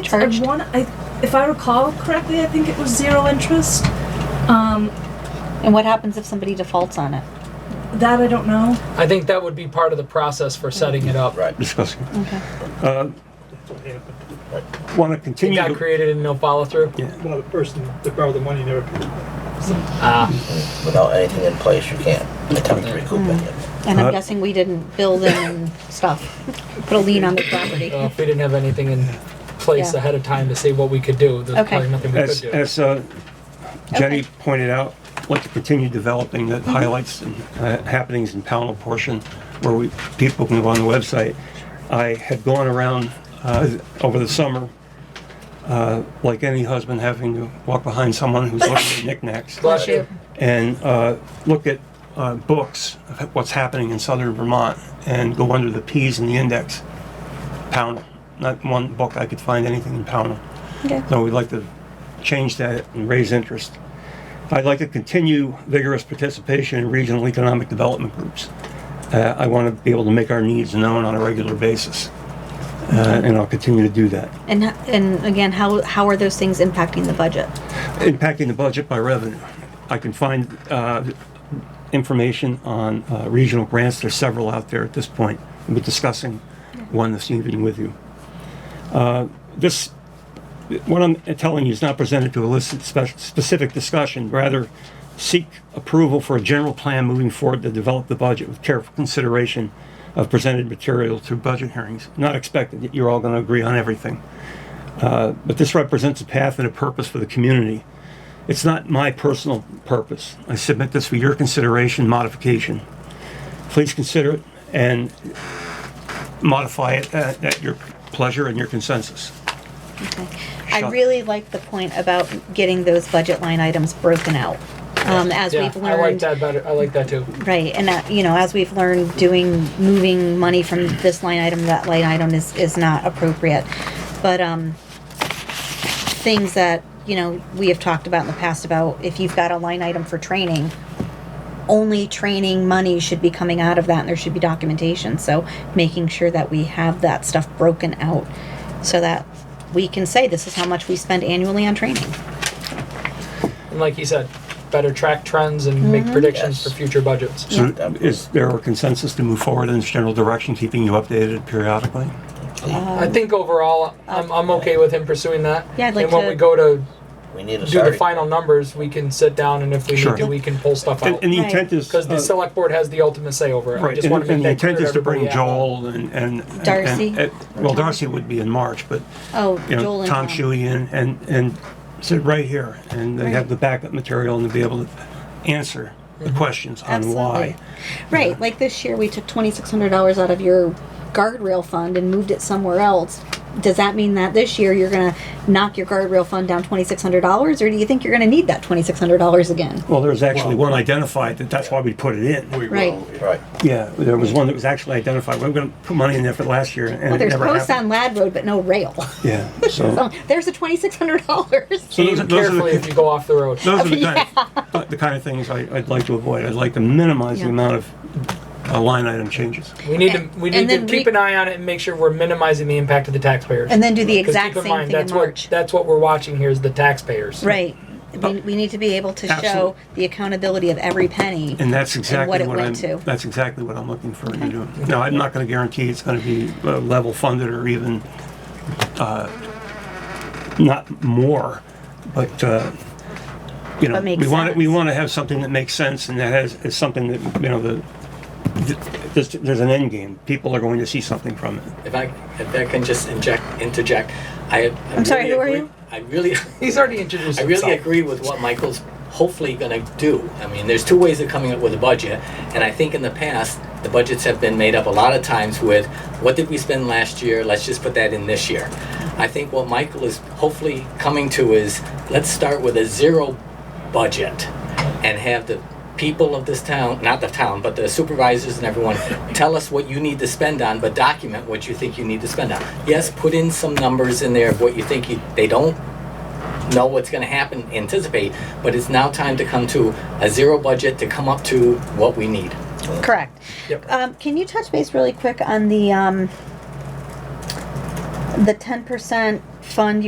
charged? I want, I, if I recall correctly, I think it was zero interest. Um, And what happens if somebody defaults on it? that I don't know. I think that would be part of the process for setting it up. Right. discussing. Okay. Want to It continue? got to- created and no follow through. Well, the person that borrowed the money never paid. Ah, Without anything in place, you can't attempt to recoup any of it. And I'm Uh, guessing we didn't bill them and stuff, put a lien on the property. well, Uh, if we didn't have anything in place Yeah. ahead of time to see what we could do, there's Okay. probably nothing we could As, do. as uh, Jenny Okay. Mm-hmm. pointed out, I'd like to continue developing the highlights and uh, happenings in panel portion where we, people can go on the website. I had gone around uh, over the summer, uh, like any husband having to walk behind someone who's looking at knickknacks. Bless you. and uh, look at uh, books of what's happening in southern Vermont and go under the P's in the index. Pownell. Not one book I could find anything in Pownell. Okay. So we'd like to change that and raise interest. I'd like to continue vigorous participation in regional economic development groups. Uh, I want to be able to make our needs known on a regular basis. Uh, and I'll continue to do that. And, and again, how, how are those things impacting the budget? impacting the budget by revenue. I can find uh, information on uh, regional grants, there's several out there at this point. We'll be discussing one this evening with you. Uh, This, what I'm telling you is not presented to elicit spec- specific discussion, rather seek approval for a general plan moving forward to develop the budget with careful consideration of presented material through budget hearings. Not expected that you're all going to agree on everything Uh, but this represents a path and a purpose for the community. It's not my personal purpose. I submit this for your consideration, modification. Please consider it and modify it at, at your pleasure and your consensus. Okay. I Sure. really like the point about getting those budget line items broken out. Um, as yeah, we've I like learned, that better. I like that too. right, and that, you know, as we've learned, doing, moving money from this line item, to that line item is, is not appropriate. But, um, things that, you know, we have talked about in the past about if you've got a line item for training, only training money should be coming out of that and there should be documentation. So making sure that we have that stuff broken out so that we can say this is how much we spend annually on training. And like he said, better track trends and Mm-hmm. make predictions Yes. for future budgets. So Yeah. is there a consensus to move forward in this general direction, keeping you updated periodically? I think overall, I'm, I'm okay with him pursuing that. Yeah, I'd like and when to- we go to We need a do the starting. final numbers, we can sit down and if we Sure. need to, we can pull stuff And, out. and the Right. intent is. Because the uh, select board has the ultimate say over it. I Right, just and want to make and the that clear intent to is to bring everybody out. Joel and, and. and- Darcy? and- Well, Darcy would be in March, but Oh, you Joel know, and Tom Tom. Shuey and, and, and sit right here, and they have the backup material and to be able to answer the questions on why. Mm-hmm. Absolutely. Right, like this year we took twenty-six hundred dollars out of your guardrail fund and moved it somewhere else. Does that mean that this year you're gonna knock your guardrail fund down twenty-six hundred dollars, or do you think you're gonna need that twenty-six hundred dollars again? Well, there was actually one identified, that that's why we put it in. Right. Right. Yeah, there was one that was actually identified, we were gonna put money in there for last year, and Well, it there's never posts on happened. Lad Road, but no rail. Yeah, so, So there's the twenty-six hundred dollars. so Aim those are- those are carefully if the, you go off the road. those are the kind, of- the kind of things I, I'd like to avoid, I'd like to minimize the Yeah. amount of uh, line item changes. We need to And- we and need to then keep we- an eye on it and make sure we're minimizing the impact of the taxpayers. And then do the 'Cause exact keep in same mind, thing in that's what- March. That's what we're watching here is the taxpayers. Right. Oh. We, we need to be able to show Absolutely. the accountability of every penny. And that's exactly what it what I'm, went to. that's exactly what I'm looking for you to do. Now, I'm not gonna guarantee it's gonna be uh, level funded or even, uh, not more, but, uh, you know, But makes we want, we sense. want to have something that makes sense and that has, is something that, you know, the, th- there's, there's an end game. People are going to see something from it. If I if I can just inject interject, I I'm, sorry, who are you? I really He's already introduced I really himself. agree with what Michael's hopefully going to do. I mean, there's two ways of coming up with a budget, and I think in the past the budgets have been made up a lot of times with what did we spend last year? Let's just put that in this year. I think what Michael is hopefully coming to is let's start with a zero budget and have the people of this town, not the town, but the supervisors and everyone, tell us what you need to spend on, but document what you think you need to spend on. Yes, put in some numbers in there of what you think you, they don't know what's going to happen, anticipate, but it's now time to come to a zero budget to come up to what we need. Correct. Yep. Um, can you touch base really quick on the, um, the ten percent fund